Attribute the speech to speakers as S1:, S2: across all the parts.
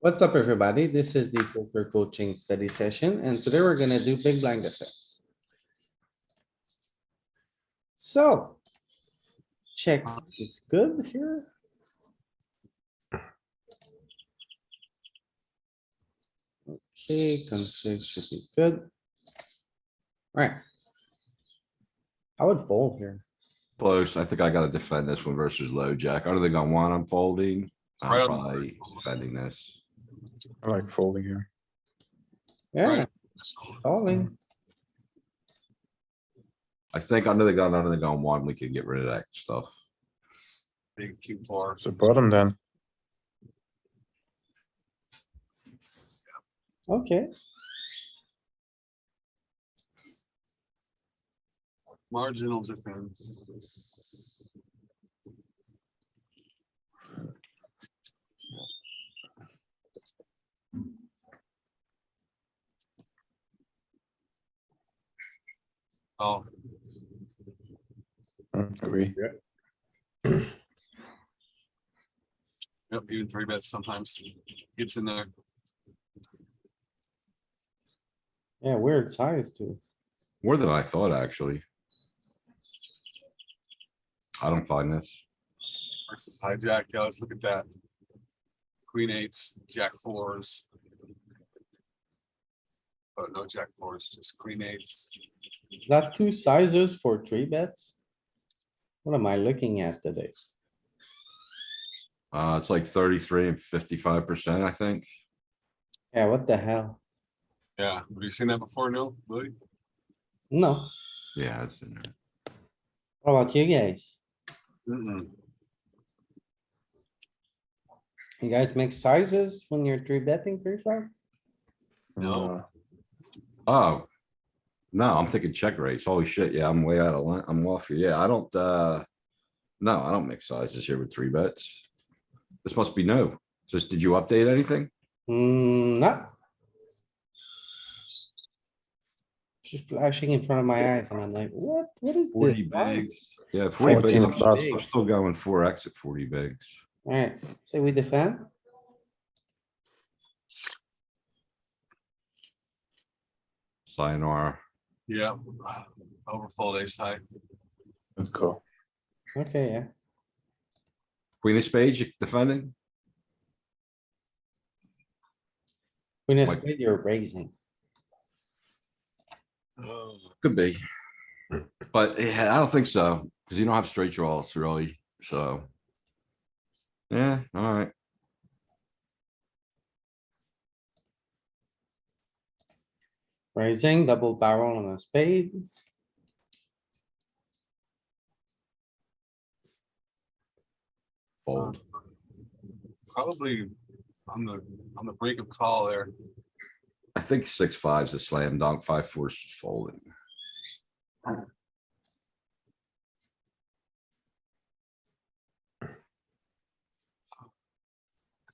S1: What's up, everybody? This is the poker coaching study session, and today we're gonna do big blind effects. So. Check is good here. Okay, config should be good. Alright. I would fold here.
S2: Close. I think I gotta defend this one versus low jack. I don't think I want, I'm folding.
S3: Right
S2: I'm
S3: on the
S2: probably
S3: first one.
S2: defending this.
S4: I like folding here.
S1: Yeah,
S3: Right.
S1: calling.
S2: I think under the gun, under the gun one, we can get rid of that stuff.
S3: Big Q bar.
S4: So bottom then.
S1: Okay,
S3: Marginal difference. Oh,
S4: Mm, Agree.
S3: yep, even three bets sometimes gets in there.
S1: yeah, weird size too.
S2: More than I thought, actually. I don't find this.
S3: versus hijack, yeah, let's look at that. Queen eights, jack fours. But no jack fours, just queen eights.
S1: Is that two sizes for three bets? What am I looking at today?
S2: Uh, it's like thirty-three and fifty-five percent, I think.
S1: Yeah, what the hell?
S3: Yeah, have you seen that before, no, Louis?
S1: No,
S2: Yeah, it's in there.
S1: how about you guys?
S3: Mm-mm.
S1: You guys make sizes when you're three betting three flag?
S3: No.
S4: Uh,
S2: Oh. No, I'm thinking check raise. Holy shit, yeah, I'm way out of line. I'm off here. Yeah, I don't, uh. No, I don't mix sizes here with three bets. This must be new. Just, did you update anything?
S1: Hmm, no. Just flashing in front of my eyes and I'm like, what, what is
S2: Forty
S1: this?
S2: bigs. Yeah, forty
S4: 14
S2: bigs. I'm
S4: plus.
S2: still- I'm still going four X at forty bigs.
S1: Alright, so we defend?
S2: Sayonara.
S3: Yeah, overfold ace high,
S4: Good call.
S1: Okay, yeah.
S2: Queen of spades you defending?
S1: When it's
S2: Like-
S1: good, you're raising.
S2: Could be. But yeah, I don't think so, because you don't have straight draws really, so. Yeah, alright.
S1: Raising, double barrel on a spade.
S2: Fold.
S3: probably on the, on the brink of call there.
S2: I think six fives a slam dunk, five fours is folding.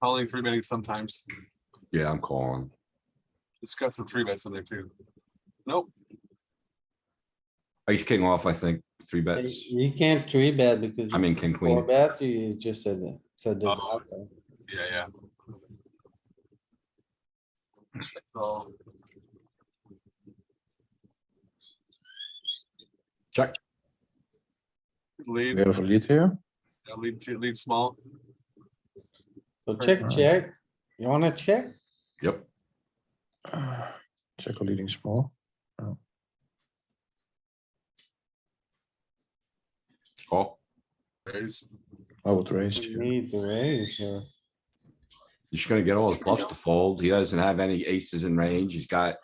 S3: Calling three betting sometimes,
S2: Yeah, I'm calling.
S3: discuss the three bets in there too. Nope,
S2: Ace king off, I think, three bets.
S1: You can't three bet because.
S2: I mean, king
S1: Four
S2: queen. Oh.
S1: bets, you just said, it's a disaster.
S3: yeah, yeah. Check call.
S2: Check.
S3: Lead.
S4: We have a lead here.
S3: Yeah, Lead to, lead small.
S1: So check,
S4: Alright.
S1: check. You wanna check?
S2: Yep.
S4: Uh, Check or leading small.
S2: Call.
S3: raise.
S4: I would raise
S1: You
S4: here.
S1: Need to raise here.
S2: You're just gonna get all his bluffs to fold. He doesn't have any aces in range. He's got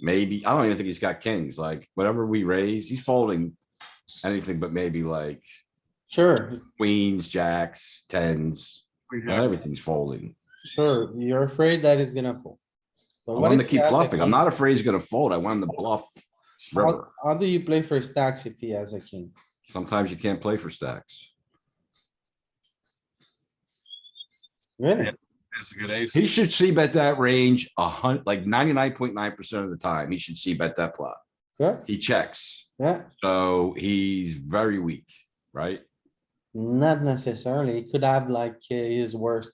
S2: maybe, I don't even think he's got kings. Like whatever we raise, he's folding anything but maybe like
S1: Sure,
S2: queens, jacks, tens,
S3: We
S2: not
S3: have-
S2: everything's folding.
S1: sure. You're afraid that it's gonna fold.
S2: I
S1: But what
S2: want him to
S1: if he
S2: keep
S1: has a
S2: bluffing. I'm
S1: king?
S2: not afraid he's gonna fold. I want him to bluff.
S1: How,
S2: river.
S1: how do you play for stacks if he has a king?
S2: Sometimes you can't play for stacks.
S1: Really?
S3: It's a good ace.
S2: He should see bet that range a hun, like ninety-nine point nine percent of the time, he should see bet that flop.
S1: Good,
S2: He checks,
S1: yeah,
S2: so he's very weak, right?
S1: not necessarily. He could have like uh, his worst